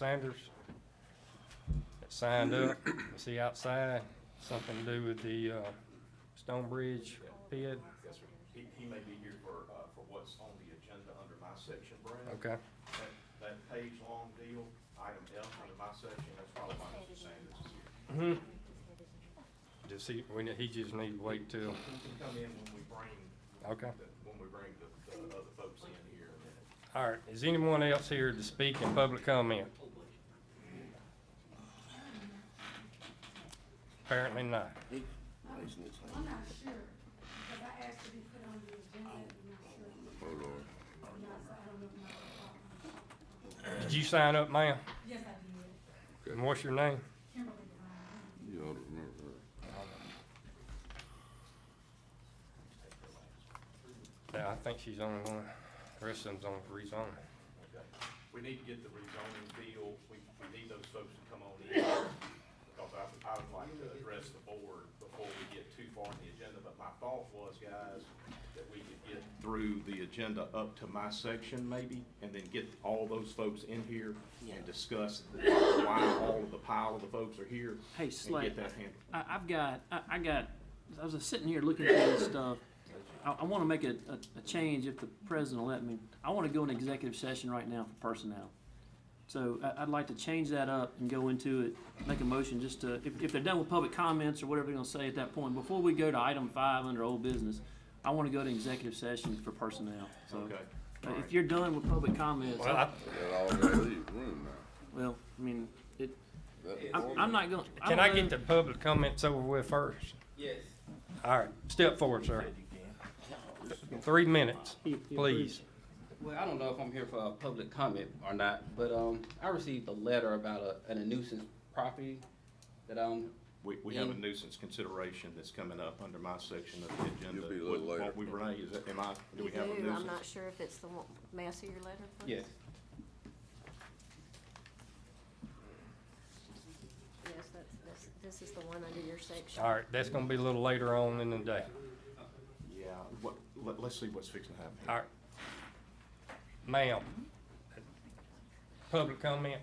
Sanders that signed up, was he outside, something to do with the, uh, Stone Bridge pit? Yes, sir. He, he may be here for, uh, for what's on the agenda under my section, Brad. Okay, That, that page long deal, item F under my section, that's probably why Mr. Sanders is here. just he, we, ne- he just need to wait till, He can come in when we bring, okay. the- when we bring the, the other folks in here in a minute. All right, is anyone else here to speak in public comment? Apparently not. I'm not sure, because I asked to be put on the agenda, I'm not sure. I'm not, I don't know if my Did you sign up, ma'am? Yes, I did. And what's your name? Kimberly Brown. You ought to remember her. Yeah, I think she's the only one. The rest of them's on rezone. Okay. We need to get the rezoning deal, we, we need those folks to come on in, because I, I would like to address the board before we get too far in the agenda, but my thought was, guys, that we could get through the agenda up to my section maybe, and then get all those folks in here and discuss why all of the pile of the folks are here. Hey, Slay. And get that handled. I, I've got, I, I got, I was just sitting here looking through this stuff. I, I wanna make a, a, a change if the president will let me. I wanna go in executive session right now for personnel. So I, I'd like to change that up and go into it, make a motion just to, if, if they're done with public comments or whatever they're gonna say at that point, before we go to item five under old business, I wanna go to executive session for personnel, so. Okay. uh, If you're done with public comments, Well, I, They got all that leave room now. well, I mean, it, That I'm, woman- I'm not gonna. can I don't know. get the public comments over with first? Yes. All right, step forward, sir. Three minutes, please. Well, I don't know if I'm here for a public comment or not, but, um, I received a letter about a, a nuisance property that, um, We, we have a nuisance consideration that's coming up under my section of the agenda. You'll be a little What- later. What we, Renee, is, that- am I, do You we have a do, nuisance? I'm not sure if it's the one, may I see your letter, please? yes, Yes, that's, that's, this is the one under your section. All right, that's gonna be a little later on in the day. Yeah, what, let, let's see what's fixing to happen. All right. Ma'am, public comment?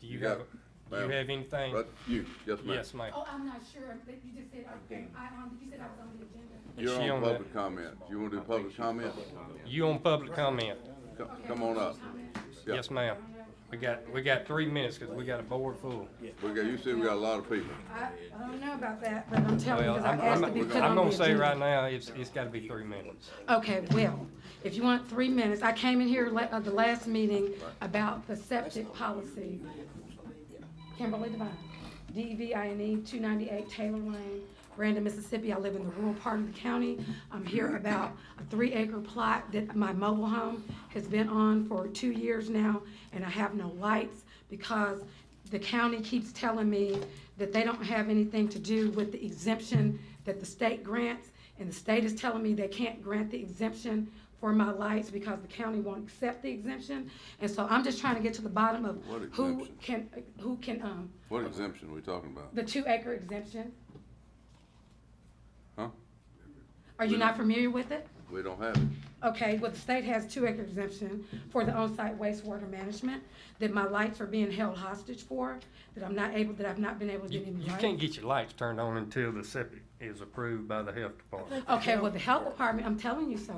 Do you You have, got- do you ma'am. have anything? But you, yes, ma'am. Yes, ma'am. Oh, I'm not sure, but you just said, okay, I, um, you said I was on the agenda. Is she You're on that? public comment. You wanna do public comment? You on public comment? Co- Okay, Come on up. Yeah. Yes, ma'am. We got, we got three minutes, cause we got a board full. We got, you said we got a lot of people. I, I don't know about that, but I'm telling you, Well, because I I'm, asked I'm, to be I'm put on the gonna say agenda. right now, it's, it's gotta be three minutes. Okay, well, if you want three minutes, I came in here la- uh, the last meeting about the septic policy. Kimberly Devine, E D-V-I-N-E, two ninety-eight Taylor Lane, Brandon, Mississippi. I live in the rural part of the county. I'm here about a three-acre plot that my mobile home has been on for two years now, and I have no lights because the county keeps telling me that they don't have anything to do with the exemption that the state grants, and the state is telling me they can't grant the exemption for my lights because the county won't accept the exemption. And so I'm just trying to get to the bottom of What who exemption? can, who can, um, What exemption we talking about? the two acre exemption? Huh? Are you not familiar with it? We don't have it. Okay, well, the state has two acre exemption for the on-site wastewater management that my lights are being held hostage for, that I'm not able, that I've not been able to You, get any you lights. can't get your lights turned on until the septic is approved by the health department. Okay, well, the health department, I'm telling you, sir,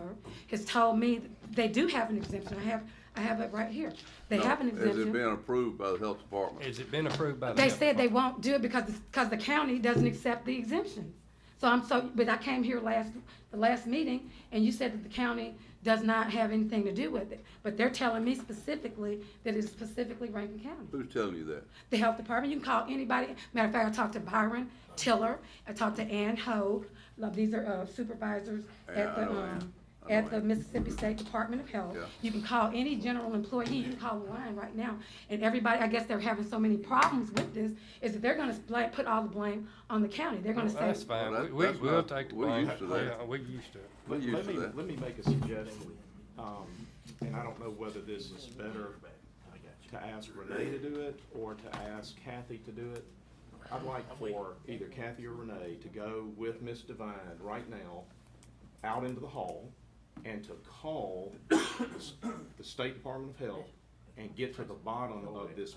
has told me that they do have an exemption. I have, I have it right here. They No. have an Has it exemption. been approved by the health department? Has it been approved by the? They health said they won't do it because, because the county doesn't accept the exemptions. So I'm so, but I came here last, the last meeting, and you said that the county does not have anything to do with it. But they're telling me specifically that it's specifically Rankin County. Who's telling you that? The health department, you can call anybody. Matter of fact, I talked to Byron Tiller, I talked to Ann Hogue. Now, These are uh, supervisors Yeah, at I the, know Ann. um, I know at the Ann. Mississippi State Department of Health. Yeah. You can call any general employee, you can call the line right now. And everybody, I guess they're having so many problems with this, is that they're gonna bla- put all the blame on the county. They're gonna Well, say, That's fine, Well, we, that- we- that's we'll fine. take the We're blame. used to that. Yeah, We're used to it. Let We're used let to me, that. let me make a suggestion, um, and I don't know whether this is better to ask Renee to do it or to ask Kathy to do it. I'd like for either Kathy or Renee to go with Ms. Devine right now out into the hall and to call the s- the State Department of Health and get to the bottom of this